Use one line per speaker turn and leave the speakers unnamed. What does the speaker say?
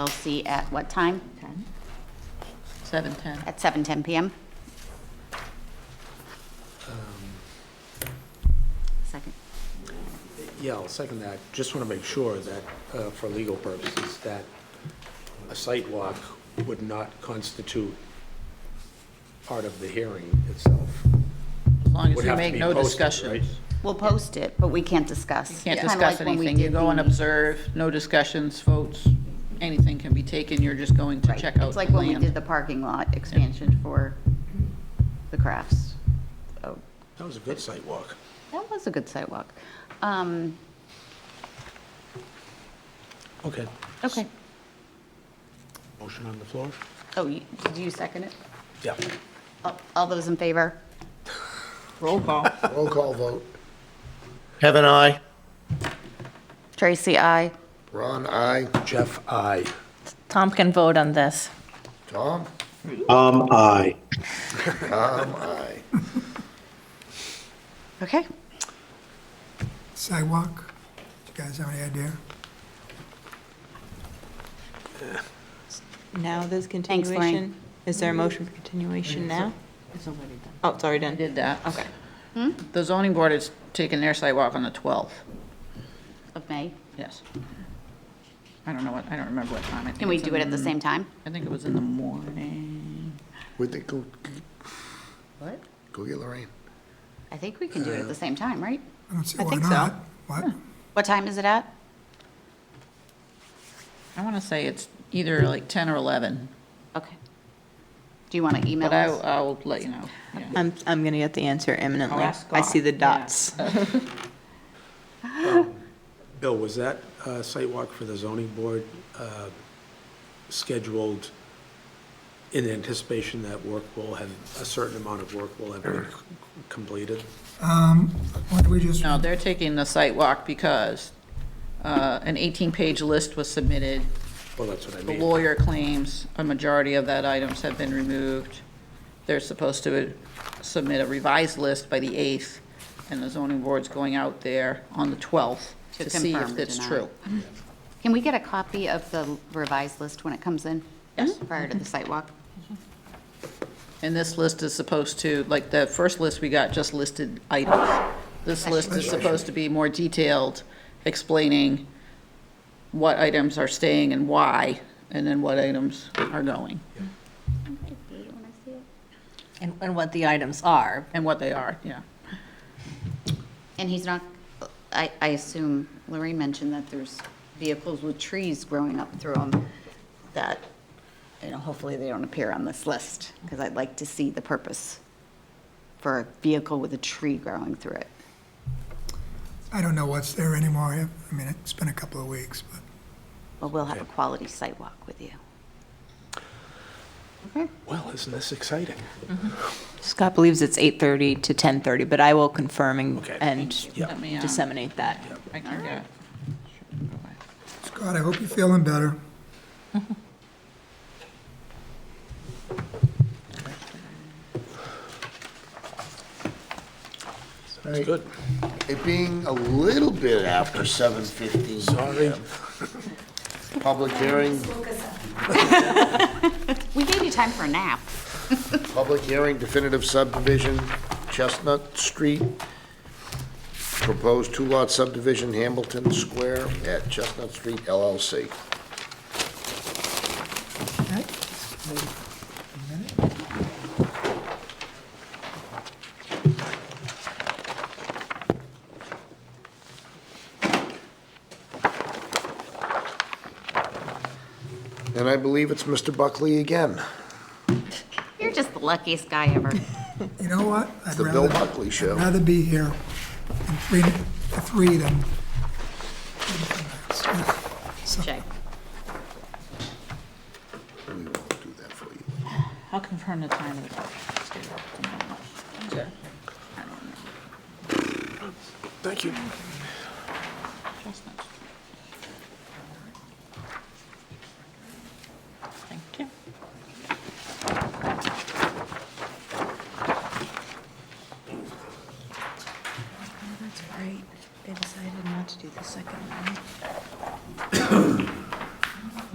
LLC at what time?
7:10.
At 7:10 PM?
Um,
Second.
Yeah, I'll second that. Just want to make sure that, uh, for legal purposes, that a site walk would not constitute part of the hearing itself.
As long as
Would
you
have to
make
be
no
posted, right?
discussions.
We'll post it, but we can't discuss.
You can't
Kinda
discuss
like when we
anything. You
did
go and
the-
observe, no discussions, votes, anything can be taken. You're just going to
Right.
check out
It's
the
like when we did
land.
the parking lot expansion for the crafts. Oh,
That was a good site walk.
That was a good sidewalk. Um,
Okay.
Okay.
Motion on the floor?
Oh, you- did you second it?
Yeah.
All- All those in favor?
Roll call.
Roll call vote.
Kevin, I.
Tracy, aye.
Ron, aye.
Jeff, aye.
Tom can vote on this.
Tom?
Um, I.
Tom, aye.
Okay.
sidewalk? You guys have any idea?
Now there's
Thanks, Lorraine.
continuation? Is there a motion for continuation now? Oh, it's already done.
Did that. Hmm?
Okay.
The zoning board has taken their sidewalk on the 12th.
Of May.
Yes. I don't know what, I don't remember what time. I think
Can we
it's
do it at the
in-
same time?
I think it was in the morning.
Would they go,
What?
go get Lorraine?
I think we can do it at the same time, right?
I don't see
I
why
think so.
not. What?
What time is it at?
I want to say it's either like 10 or 11,
Okay. Do you want to email
but I,
us?
I'll let you know. Yeah.
I'm, I'm gonna get the answer imminently.
I'll Oh, ask
I see the
Scott, yeah.
dots.
Bill, was that uh, site walk for the zoning board uh, scheduled in anticipation that work will have, a certain amount of work will have been c- completed?
Why don't we just,
No, they're taking the site walk because uh, an 18-page list was submitted.
Well, that's what I
The
mean.
lawyer claims a majority of that items have been removed. They're supposed to submit a revised list by the 8th, and the zoning board's going out there on the 12th
To
to see
confirm
if
or
that's
deny.
true.
Can we get a copy of the revised list when it comes in?
Yes. Mm-hmm.
Prior to the site walk?
And this list is supposed to, like, the first list we got just listed items. This list is supposed to be more detailed, explaining what items are staying and why, and then what items are going,
And, and what the items are.
and what they are, yeah.
And he's not, I, I assume Lorraine mentioned that there's vehicles with trees growing up through them that, you know, hopefully they don't appear on this list, because I'd like to see the purpose for a vehicle with a tree growing through it.
I don't know what's there anymore. I- I mean, it's been a couple of weeks, but
But we'll have a quality site walk with you.
Well, isn't this exciting?
Scott believes it's 8:30 to 10:30, but I will confirm and-
Okay.
and
Let me, uh,
disseminate that.
I can get.
Scott, I hope you're feeling better.
It's good.
It being a little bit after seven fifteen. Sorry. Public hearing,
We gave you time for a nap.
public hearing definitive subdivision, Chestnut Street. Proposed two-lot subdivision, Hamilton Square at Chestnut Street LLC.
Right?
And I believe it's Mr. Buckley again.
You're just the luckiest guy ever.
You know what? I'd
The Bill
rather-
Buckley Show.
I'd rather be here in three, three than. So,
Check.
We won't do that for you.
I'll confirm the time of the.
Thank you.